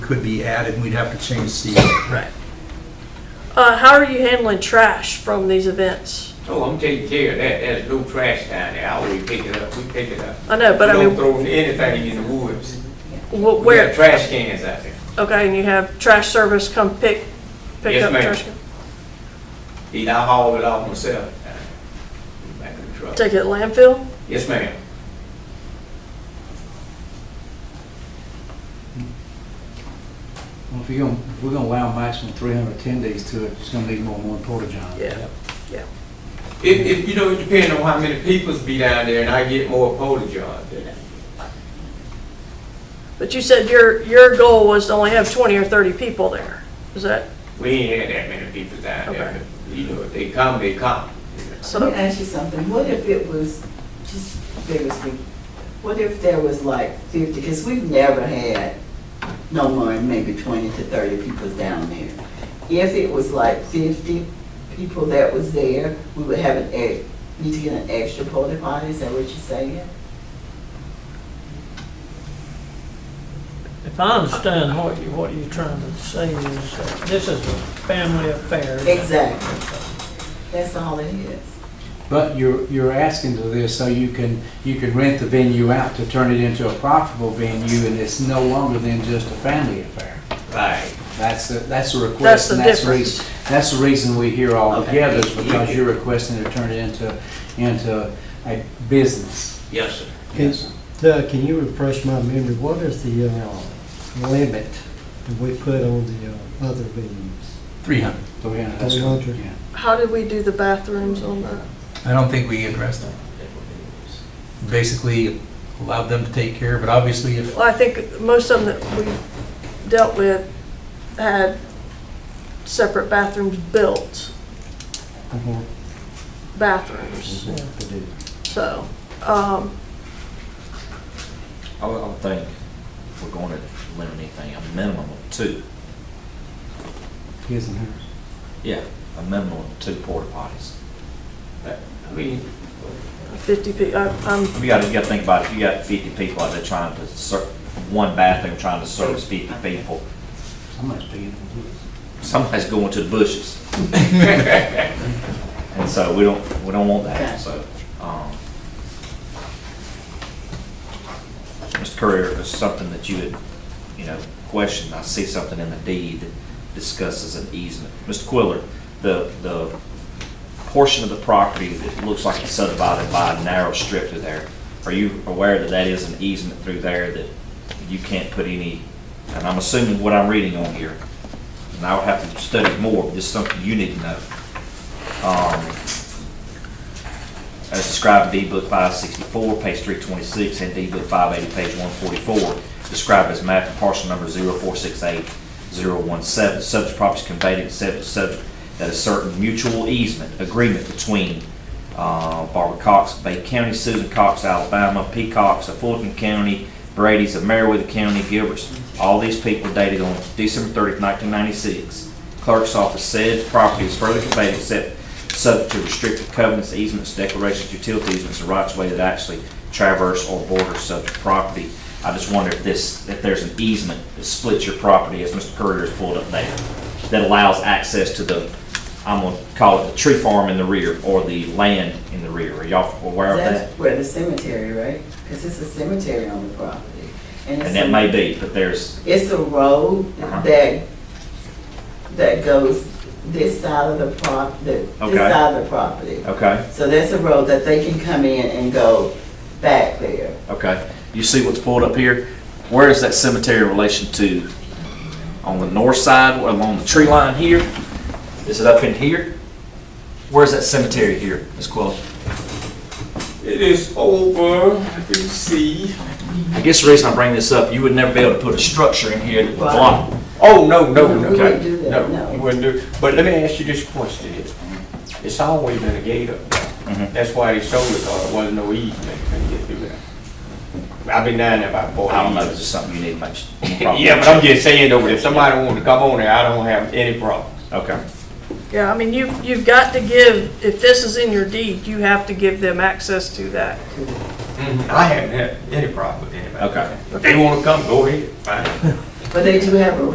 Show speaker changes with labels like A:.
A: could be added, and we'd have to change the,
B: Right.
C: Uh, how are you handling trash from these events?
D: Oh, I'm taking care of that, there's no trash down there, I always pick it up, we pick it up.
C: I know, but I
D: We
C: mean-
D: don't throw anything in the woods.
C: Wh-
D: We got
C: Where,
D: trash cans out there.
C: okay, and you have trash service come pick, pick
D: Yes,
C: up
D: ma'am.
C: trash?
D: Did I haul it off myself? Back in the truck.
C: Take it to landfill?
D: Yes, ma'am.
E: Well, if you're gonna, if we're gonna allow maximum three hundred attendees to it, it's gonna need more than one porta john.
C: Yeah,
D: If, if, you know, it depends on how many peoples be down there, and I get more porta johns.
C: but you said your, your goal was to only have twenty or thirty people there, is that,
D: We ain't had that many people down
C: Okay.
D: there, but, you know, if they come, they come.
F: Let me
C: so,
F: ask you something, what if it was, just bear with me, what if there was like fifty, because we've never had no more than maybe twenty to thirty people down there. If it was like fifty people that was there, we would have an, ex- need to get an extra porta potty, is that what you're saying?
G: If I understand what you, what you're trying to say is, that this is a family affair.
F: Exactly. That's all it is.
E: But you're, you're asking to this so you can, you can rent the venue out to turn it into a profitable venue and it's no longer than just a family affair.
D: Right.
E: That's, the that's the
C: That's
E: request
C: the
E: and that's the
C: difference.
E: reason, that's the reason we hear all
F: Okay.
E: together is because you're requesting to turn it into, into a business.
D: Yes, sir.
B: Yes. Doug, can you refresh my memory? What is the uh, limit that we put on the uh, other venues?
E: Three hundred. Three hundred, Oh, that's
B: Three
E: correct,
B: hundred.
E: yeah.
C: how did we do the bathrooms on that?
A: I don't think we addressed that. Basically, allowed them to take care of it, obviously, if,
C: Well, I think most of them that we dealt with had separate bathrooms built,
B: Mhm.
C: bathrooms,
B: To do.
C: so, um,
H: I don't think we're going to limit anything, a minimum of two.
E: His and hers.
H: Yeah. A minimum of two porta potties.
D: I mean,
C: fifty pe, I, I'm,
H: You gotta, you gotta think about it, you got fifty people out there trying to ser, one bathroom trying to service fifty people.
E: Somebody's paying for this.
H: Somebody's going to the bushes. And so we don't, we don't want that, so, um. Mr. Courier, if it's something that you had, you know, questioned, I see something in the deed that discusses an easement. Mr. Quiller, the, the portion of the property that looks like it's subdivided by a narrow strip through there, are you aware that that is an easement through there that you can't put any, and I'm assuming what I'm reading on here, and I would have to study more, but this is something you need to know. Um, As described in D Book 564, page 326, and D Book 580, page 144, described as map and parcel number 0468017. Subject property is conveyed except as subject that a certain mutual easement agreement between uh, Barbara Cox, of Bay County, Susan Cox, Alabama, Peacocks of Fulton County, Brady's of Meriwether County, Gilbert's. All these people dated on December 30th, 1996. Clerk's office said property is further conveyed except subject to restricted covenants, easements, declarations, utility easements, or rights of way that actually traverse or border subject property. I just wonder if this, if there's an easement that splits your property, as Mr. Courier has pulled up there, that allows access to the, I'm gonna call it the tree farm in the rear, or the land in the rear. Are y'all aware of that?
F: That's where the cemetery, right? Because it's a cemetery on the property. it's
H: And that
F: a-
H: may be, but there's,
F: It's a road that, that goes this side of the prop, the- this
H: Okay.
F: side of the property.
H: okay,
F: So that's a road that they can come in and go back there.
H: okay. You see what's pulled up here? Where is that cemetery in relation to? On the north side, or along the tree line here? Is it up in here? Where's that cemetery here, Ms. Quillen?
D: it is over, you see.
H: I guess the reason I bring this up, you would never be able to put a structure in here that would block.
D: Oh, no, no, no.
F: We wouldn't do that,
D: You
F: no.
D: wouldn't do, but let me ask you this question. It's always been a gate up there.
H: Mhm.
D: That's why they sold it, or it wasn't no easement. couldn't get through there. I've been down there about four
H: I don't know,
D: years.
H: it's just something you need to make.
D: Yeah, but I'm just saying though, if somebody wanted to come on there, I don't have any problem.
H: Okay,
C: yeah, I mean, you, you've got to give, if this is in your deed, you have to give them access to that.
D: I haven't had any problem with anybody.
H: okay.
D: If they wanna come, go ahead, fine.
F: But they do have a